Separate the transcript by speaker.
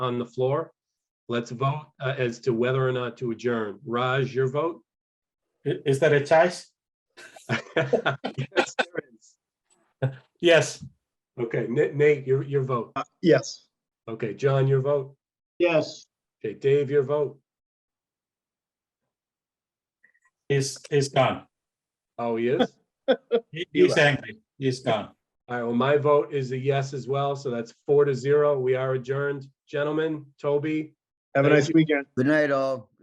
Speaker 1: on the floor. Let's vote uh, as to whether or not to adjourn. Raj, your vote?
Speaker 2: I- Is that a choice?
Speaker 1: Yes, there is.
Speaker 2: Yes.
Speaker 1: Okay, Na- Nate, your, your vote.
Speaker 3: Yes.
Speaker 1: Okay, John, your vote.
Speaker 3: Yes.
Speaker 1: Okay, Dave, your vote.
Speaker 2: He's, he's gone.
Speaker 1: Oh, he is?
Speaker 2: He- He's angry. He's gone.
Speaker 1: All right, well, my vote is a yes as well, so that's four to zero. We are adjourned. Gentlemen, Toby,
Speaker 3: Have a
Speaker 1: Thank
Speaker 3: nice
Speaker 1: you.
Speaker 3: weekend.
Speaker 4: Good night, all.